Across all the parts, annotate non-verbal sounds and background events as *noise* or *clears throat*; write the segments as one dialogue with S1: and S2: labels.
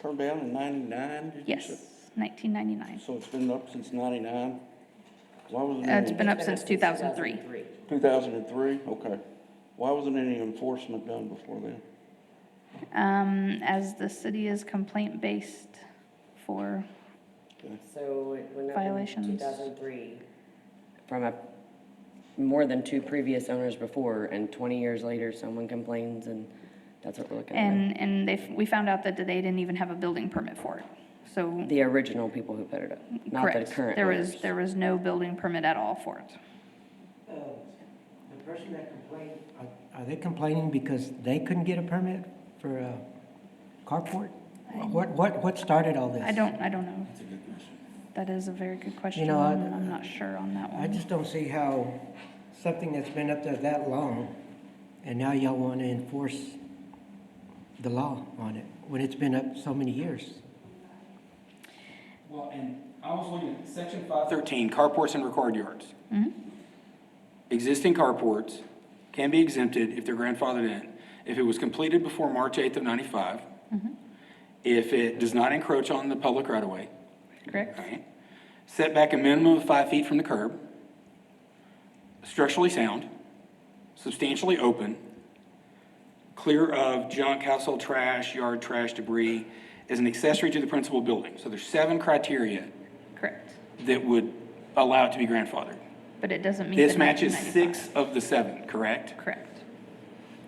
S1: turned down in ninety-nine, did you
S2: Yes,
S1: say?
S2: 1999.
S1: So it's been up since ninety-nine? Why wasn't
S2: Uh, It's
S1: any,
S2: been up since 2003.
S1: two thousand and three, okay. Why wasn't any enforcement done before then?
S2: Um, As the city is complaint-based for,
S3: So it went up in
S2: Violations.
S3: 2003 from a, more than two previous owners before, and 20 years later, someone complains, and that's what we're looking at.
S2: and, and they, we found out that they didn't even have a building permit for it. So,
S3: The original people who put it up, not the
S2: correct.
S3: current
S2: There was,
S3: owners.
S2: there was no building permit at all for it.
S4: Uh, The person that complained, are- are they complaining because they couldn't get a permit for a carport? What, what, what started all this?
S2: I don't, I don't know. That is a very good question.
S4: know, I-
S2: I'm I'm not sure on that
S4: I
S2: one.
S4: just don't see how something that's been up there that long, and now y'all want to enforce the law on it, when it's been up so many years.
S5: Well, and I was looking at section five thirteen, carports and required yards. Existing carports can be exempted if they're grandfathered in, if it was completed before March eighth of ninety-five, if it does not encroach on the public right of way,
S2: Correct?
S5: right? Set back a minimum of five feet from the curb, structurally sound, substantially open, clear of junk, household trash, yard trash, debris, is an accessory to the principal building. So there's seven criteria
S2: Correct.
S5: that would allow it to be grandfathered.
S2: But it doesn't meet the
S5: This matches
S2: 1995.
S5: six of the seven, correct?
S2: Correct.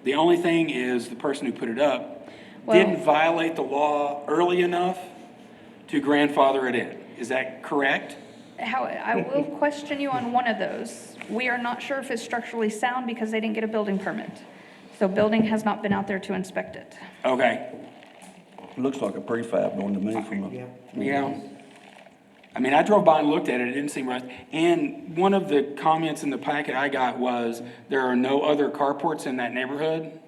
S5: The only thing is, the person who put it up
S2: Well-
S5: didn't violate the law early enough to grandfather it in. Is that correct?
S2: How, I will question you on one of those. We are not sure if it's structurally sound because they didn't get a building permit. So building has not been out there to inspect it.
S5: Okay,
S1: Looks like a prefab going to me from
S4: Yeah.
S1: a,
S5: yeah. I mean, I drove by and looked at it, it didn't seem right. And one of the comments in the packet I got was, there are no other carports in that neighborhood.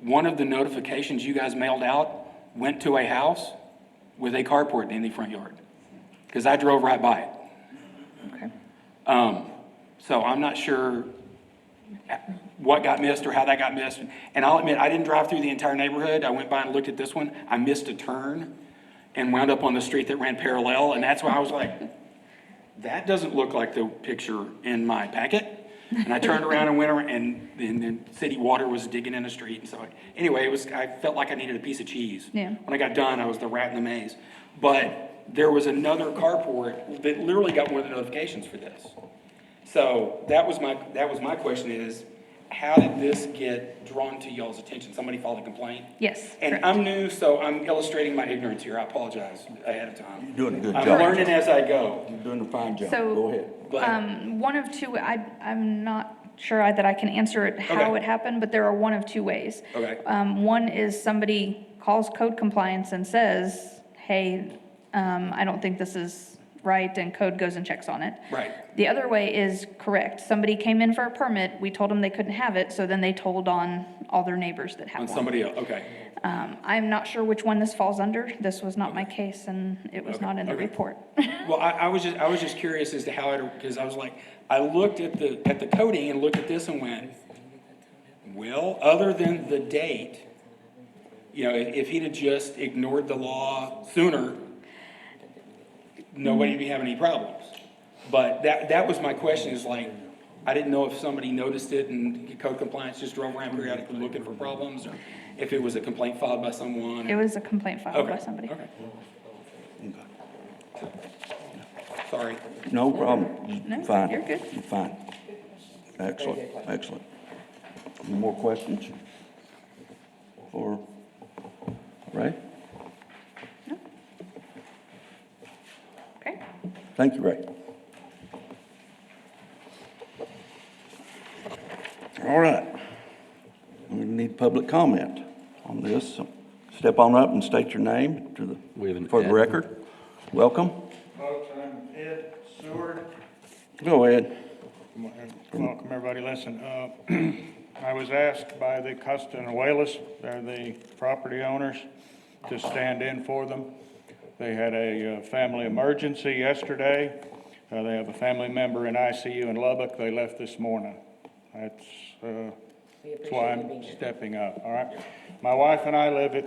S5: One of the notifications you guys mailed out went to a house with a carport in the front yard. Because I drove right by it.
S2: Okay.
S5: Um, so I'm not sure what got missed or how that got missed. And I'll admit, I didn't drive through the entire neighborhood. I went by and looked at this one. I missed a turn and wound up on the street that ran parallel, and that's why I was like, that doesn't look like the picture in my packet. And I turned around and went around, and then, then city water was digging in the street, and so, I- anyway, it was, I felt like I needed a piece of cheese.
S2: Yeah.
S5: When I got done, I was the rat in the maze. But there was another carport that literally got one of the notifications for this. So that was my, that was my question is, how did this get drawn to y'all's attention? Somebody filed a complaint?
S2: Yes,
S5: And
S2: correct.
S5: I'm new, so I'm illustrating my ignorance here. I apologize ahead of time.
S1: doing a good
S5: I'm
S1: job.
S5: learning as I go.
S1: you're doing a fine job,
S2: So-
S1: go ahead.
S5: But
S2: Um, one of two, I, I'm not sure I- that I can answer it how
S5: Okay.
S2: it happened, but there are one of two ways.
S5: Okay.
S2: Um, one is somebody calls code compliance and says, hey, um, I don't think this is right, and code goes and checks on it.
S5: Right.
S2: The other way is correct. Somebody came in for a permit, we told them they couldn't have it, so then they told on all their neighbors that
S5: on
S2: have one.
S5: somebody else, okay.
S2: Um, I'm not sure which one this falls under. This was not my case, and it was
S5: Okay,
S2: not in the
S5: okay.
S2: report.
S5: Well, I, I was just, I was just curious as to how it, because I was like, I looked at the, at the coding and looked at this and went, well, other than the date, you know, if if he'd have just ignored the law sooner, nobody'd be having any problems. But that, that was my question, is like, I didn't know if somebody noticed it and code compliance just drove around periodically looking for problems, or if it was a complaint filed by someone.
S2: *laughs* It was a complaint filed by
S5: Okay,
S2: somebody.
S5: okay. Sorry.
S1: No problem,
S2: No,
S1: You're fine.
S2: you're good.
S1: You're fine. Excellent, excellent. Any more questions? For Ray?
S2: Okay.
S1: Thank you, Ray. All right. We need public comment on this. So Step on up and state your name to
S6: We have an
S1: the, for the
S6: ad.
S1: record. Welcome.
S7: Folks, I'm Ed Seward.
S1: Go ahead.
S7: Welcome, everybody, listen, uh, *clears throat* I was asked by the Costanuelas, they're the property owners, to stand in for them. They had a uh, family emergency yesterday, Uh, they have a family member in ICU in Lubbock, they left this morning. That's, uh,
S3: We
S7: that's why
S3: appreciate you being
S7: I'm
S3: here.
S7: stepping up, all right? My wife and I live at